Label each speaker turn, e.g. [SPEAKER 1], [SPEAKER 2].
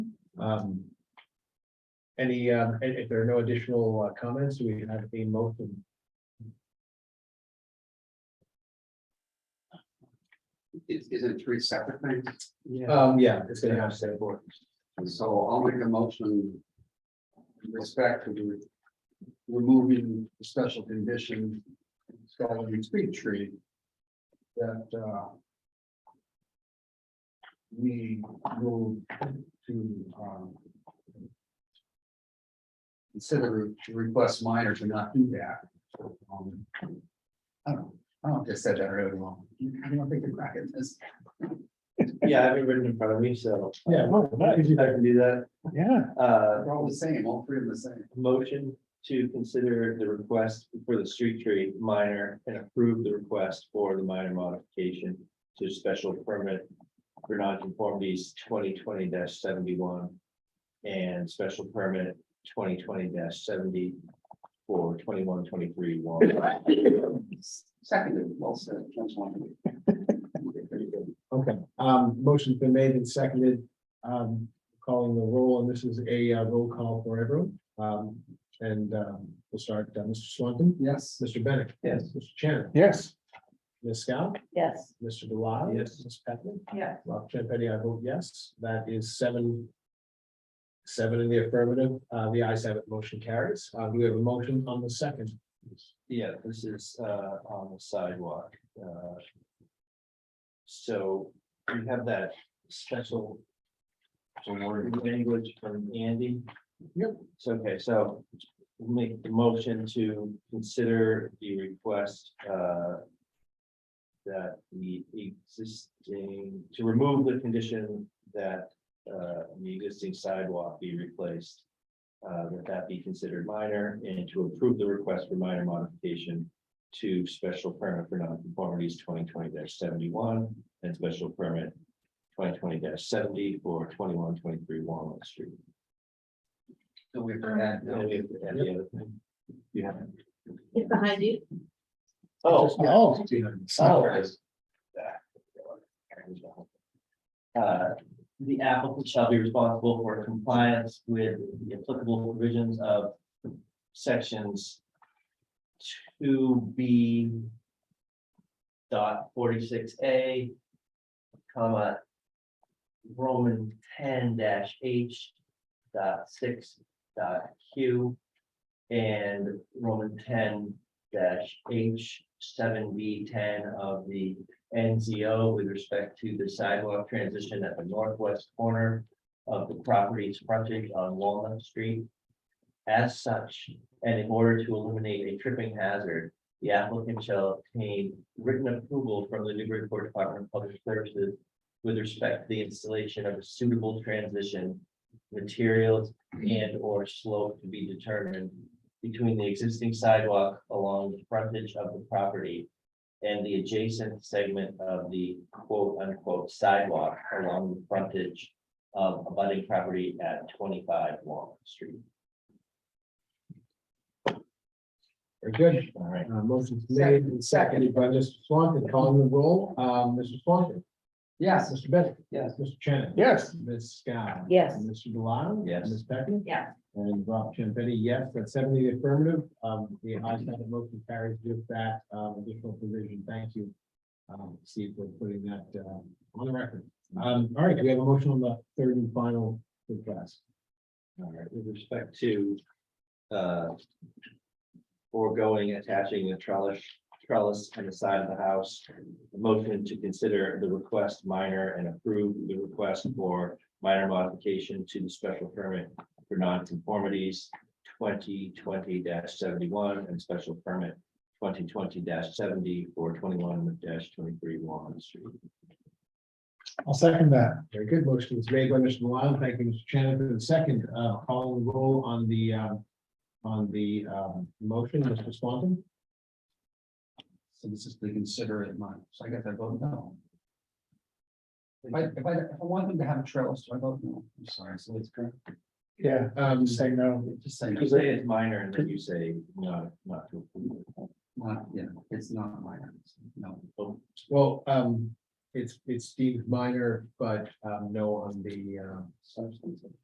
[SPEAKER 1] Um. Any, um, i- if, there are no additional uh, comments, we have a motion.
[SPEAKER 2] Is, is it three separate things?
[SPEAKER 3] Yeah.
[SPEAKER 1] Um, yeah, it's gonna have to say board.
[SPEAKER 2] So I'll make a motion. in Respect to the- removing the special condition. Installing a speed tree. That, uh. We move to, um. Consider to request minor to not do that. Um, I don't, I don't just said that really wrong. I don't think the crack in this.
[SPEAKER 3] Yeah, I have it written in front of me, so.
[SPEAKER 1] Yeah,
[SPEAKER 3] I can do that.
[SPEAKER 1] Yeah.
[SPEAKER 3] Uh,
[SPEAKER 2] They're all the same, all three of them the same.
[SPEAKER 3] motion to consider the request for the street tree minor and approve the request for the minor modification to special permit for nonconformities twenty twenty seventy-one and special permit twenty twenty seventy for twenty-one, twenty-three, one.
[SPEAKER 2] Seconded, well said, Jim's one.
[SPEAKER 1] Okay, um, motion's been made and seconded, um, calling the roll, and this is a uh, roll call for everyone. Um, and, um, we'll start, uh, Mr. Swanton,
[SPEAKER 2] Yes,
[SPEAKER 1] Mr. Bennett.
[SPEAKER 3] Yes.
[SPEAKER 1] Mr. Shannon.
[SPEAKER 4] Yes.
[SPEAKER 1] Ms. Scott,
[SPEAKER 5] Yes.
[SPEAKER 1] Mr. Delisle.
[SPEAKER 3] Yes.
[SPEAKER 1] Ms. Peckman.
[SPEAKER 5] Yeah.
[SPEAKER 1] Rob Champetti, I vote yes. That is seven. Seven in the affirmative. Uh, the ayes have it, motion carries. Uh, do we have a motion on the second.
[SPEAKER 3] Yeah, this is uh on the sidewalk. uh, So we have that special. Language from Andy.
[SPEAKER 1] Yep.
[SPEAKER 3] So, okay, so make the motion to consider the request uh. That the existing, to remove the condition that uh the existing sidewalk be replaced uh, that that be considered minor and to approve the request for minor modification to special permit for nonconformities twenty twenty seventy-one and special permit twenty twenty seventy for twenty-one, twenty-three Walnut Street.
[SPEAKER 2] so we had,
[SPEAKER 3] And we have to add the other thing. You have.
[SPEAKER 5] It's behind you.
[SPEAKER 4] Oh.
[SPEAKER 3] Sorry. Uh, The applicant shall be responsible for compliance with the applicable provisions of sections two B dot forty-six A, comma, Roman ten dash H dot six dot Q and Roman ten dash H seven B ten of the NZO with respect to the sidewalk transition at the northwest corner of the property's frontage on Walnut Street. As such, and in order to eliminate a tripping hazard, the applicant shall obtain written approval from the Newburyport Department of Public Services with respect to the installation of a suitable transition materials and or slope to be determined between the existing sidewalk along the frontage of the property and the adjacent segment of the quote unquote sidewalk along the frontage of abutting property at twenty-five Walnut Street.
[SPEAKER 1] Very good.
[SPEAKER 3] All right.
[SPEAKER 1] Uh, motion's made and seconded by Mr. Swanton, calling the roll. Um, Mr. Swanton.
[SPEAKER 2] yes,
[SPEAKER 1] Mr. Bennett.
[SPEAKER 2] Yes.
[SPEAKER 1] Mr. Shannon.
[SPEAKER 4] Yes.
[SPEAKER 1] Ms. Scott.
[SPEAKER 5] Yes.
[SPEAKER 1] Mr. Delisle.
[SPEAKER 3] Yes.
[SPEAKER 1] Ms. Peckman.
[SPEAKER 5] Yeah.
[SPEAKER 1] And Rob Champetti, yes, that's seventy affirmative. Um, the ayes have it, motion carries with that, um, additional provision. Thank you. Um, Steve, for putting that, uh, on the record. Um, all right, do we have a motion on the third and final request?
[SPEAKER 3] All right, with respect to uh foregoing attaching the trellis, trellis on the side of the house. the Motion to consider the request minor and approve the request for minor modification to the special permit for nonconformities twenty twenty seventy-one and special permit twenty twenty seventy for twenty-one twenty-three Walnut Street.
[SPEAKER 4] I'll second that.
[SPEAKER 1] Very good. Motion was made by Mr. Malone. Thank you, Mr. Shannon, for the second, uh, call and roll on the, um, on the, um, motion, Mr. Swanton.
[SPEAKER 2] so this is the considerate mine, so I guess I vote no. If I, if I, if I want them to have a trail, so I vote no, I'm sorry, so it's correct,
[SPEAKER 4] Yeah,
[SPEAKER 1] Um,
[SPEAKER 4] say no.
[SPEAKER 2] just say,
[SPEAKER 3] You say it's minor and then you say no, not to approve.
[SPEAKER 2] not, yeah, it's not minor, no.
[SPEAKER 1] well, um, it's, it's Steve Minor, but, um, no on the, uh,
[SPEAKER 2] substantive.